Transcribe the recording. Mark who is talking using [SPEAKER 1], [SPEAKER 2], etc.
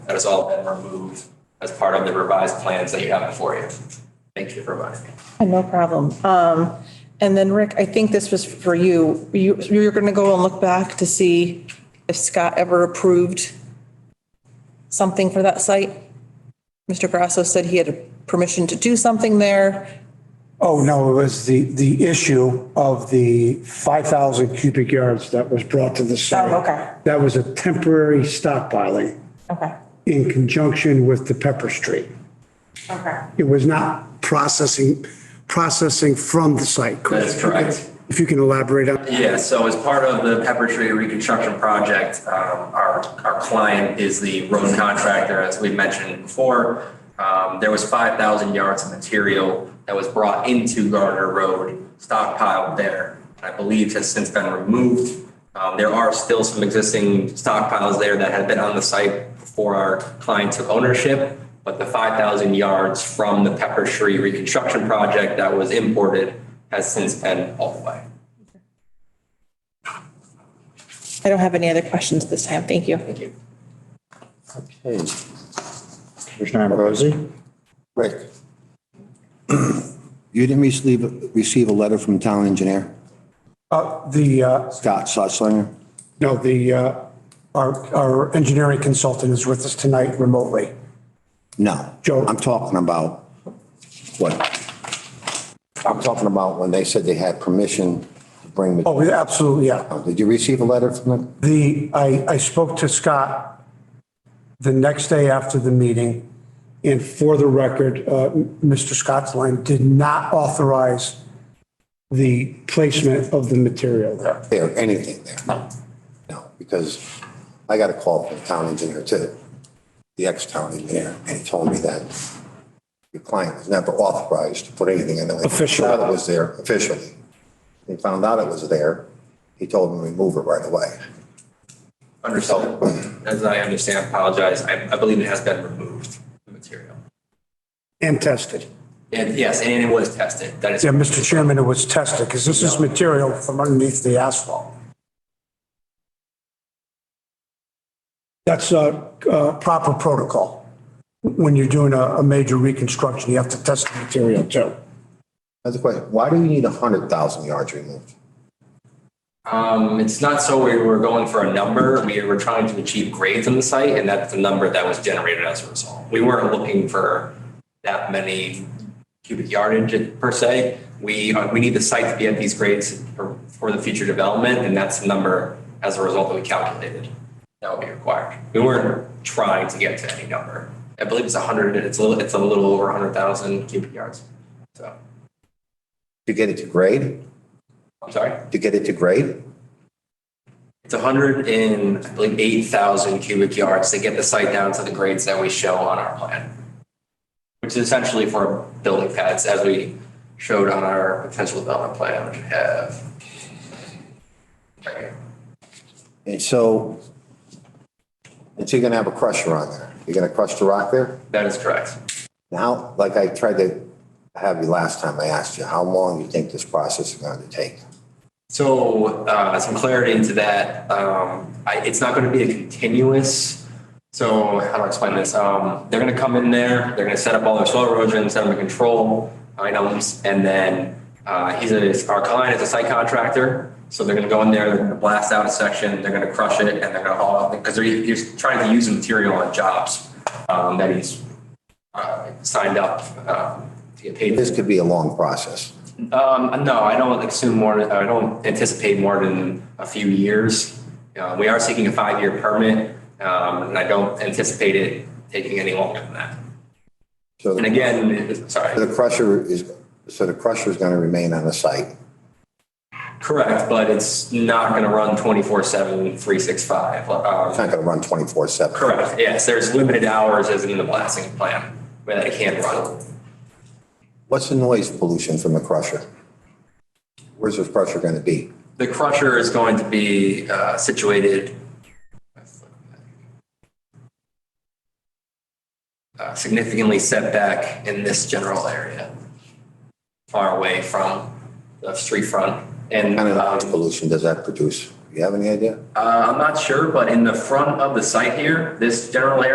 [SPEAKER 1] That has all been removed as part of the revised plans that you have before you. Thank you for reminding me.
[SPEAKER 2] Oh, No problem. Um, And then Rick, I think this was for you. You, you're going to go and look back to see if Scott ever approved something for that site? Mr. Grasso said he had permission to do something there.
[SPEAKER 3] Oh, no, it was the, the issue of the 5,000 cubic yards that was brought to the site.
[SPEAKER 2] Oh, okay.
[SPEAKER 3] That was a temporary stockpiling
[SPEAKER 2] Okay,
[SPEAKER 3] in conjunction with the Pepper Street.
[SPEAKER 2] okay.
[SPEAKER 3] It was not processing, processing from the site.
[SPEAKER 1] That is correct.
[SPEAKER 3] If you can elaborate on that.
[SPEAKER 1] Yeah, so as part of the Pepper Tree reconstruction project, um, our, our client is the road contractor, as we mentioned before. Um, There was 5,000 yards of material that was brought into Gardner Road, stockpiled there. I believe has since been removed. Um, There are still some existing stockpiles there that had been on the site before our client took ownership. But the 5,000 yards from the Pepper Tree reconstruction project that was imported has since been all the way.
[SPEAKER 2] I don't have any other questions this time. Thank you. Thank you.
[SPEAKER 4] Okay. Commissioner Ambrosi?
[SPEAKER 5] Rick. You didn't receive, receive a letter from town engineer,
[SPEAKER 3] Uh, The, uh,
[SPEAKER 5] Scott Sutzlinger?
[SPEAKER 3] no, the, uh, our, our engineering consultant is with us tonight remotely.
[SPEAKER 5] No.
[SPEAKER 3] Joe.
[SPEAKER 5] I'm talking about what? I'm talking about when they said they had permission to bring the.
[SPEAKER 3] Oh, absolutely, yeah.
[SPEAKER 5] Did you receive a letter from them?
[SPEAKER 3] The, I, I spoke to Scott the next day after the meeting, and for the record, uh, Mr. Scott's line did not authorize the placement of the material there.
[SPEAKER 5] There, anything there? No. No, because I got a call from the town engineer too, the ex-town engineer, and he told me that your client was never authorized to put anything in there.
[SPEAKER 3] Officially.
[SPEAKER 5] Found out It was there officially. He found out it was there. He told him to remove it right away.
[SPEAKER 1] Understood. As I understand, apologize. I, I believe it has been removed, the material.
[SPEAKER 3] And tested.
[SPEAKER 1] And yes, and it was tested. That is,
[SPEAKER 3] Yeah, Mr. Chairman, it was tested, because this is material from underneath the asphalt. That's a, uh proper protocol. When you're doing a, a major reconstruction, you have to test the material too.
[SPEAKER 5] That's the question. Why do you need 100,000 yards removed?
[SPEAKER 1] um, it's not so we were going for a number. We were trying to achieve grades on the site and that's the number that was generated as a result. We weren't looking for that many cubic yardage per se. We, uh, we need the site to be at these grades for, for the future development and that's the number as a result that we calculated. That would be required. We weren't trying to get to any number. I believe it's 100, it's a little, it's a little over 100,000 cubic yards. So,
[SPEAKER 5] To get it to grade?
[SPEAKER 1] I'm sorry.
[SPEAKER 5] To get it to grade?
[SPEAKER 1] It's 100 and, I believe, 8,000 cubic yards to get the site down to the grades that we show on our plan, which is essentially for building pads, as we showed on our potential development plan, which we have. Right here.
[SPEAKER 5] And so, and so you're going to have a crusher on there. You're going to crush the rock there?
[SPEAKER 1] That is correct.
[SPEAKER 5] Now, like I tried to have you last time, I asked you, how long you think this process is going to take?
[SPEAKER 1] So, uh, some clarity into that. Um, I, it's not going to be a continuous. So, how do I explain this? Um, they're going to come in there. They're going to set up all their soil erosion, set up the control items, and then uh, he's a, our client is a site contractor. So they're going to go in there. They're going to blast out a section. They're going to crush it, and they're going to haul out because they're he's trying to use the material on jobs um, that he's uh, signed up um, to get paid. for.
[SPEAKER 5] This could be a long process.
[SPEAKER 1] Um, no, I don't assume more, uh, I don't anticipate more than a few years. Uh, we are seeking a five-year permit, um, and I don't anticipate it taking any longer than that.
[SPEAKER 5] So
[SPEAKER 1] And
[SPEAKER 5] the
[SPEAKER 1] again, it- sorry,
[SPEAKER 5] the crusher is, so the crusher is going to remain on the site.
[SPEAKER 1] correct, but it's not going to run 24/7, 365.
[SPEAKER 5] It's
[SPEAKER 1] Um,
[SPEAKER 5] not going to run 24/7.
[SPEAKER 1] correct, yes, there's limited hours as in the blasting plan where that it can run.
[SPEAKER 5] What's the noise pollution from the crusher? Where's this crusher going to be?
[SPEAKER 1] The crusher is going to be uh, situated uh, significantly set back in this general area, far away from the street front. And
[SPEAKER 5] What kind of noise
[SPEAKER 1] um,
[SPEAKER 5] pollution does that produce? You have any idea?
[SPEAKER 1] uh, I'm not sure, but in the front of the site here, this general area.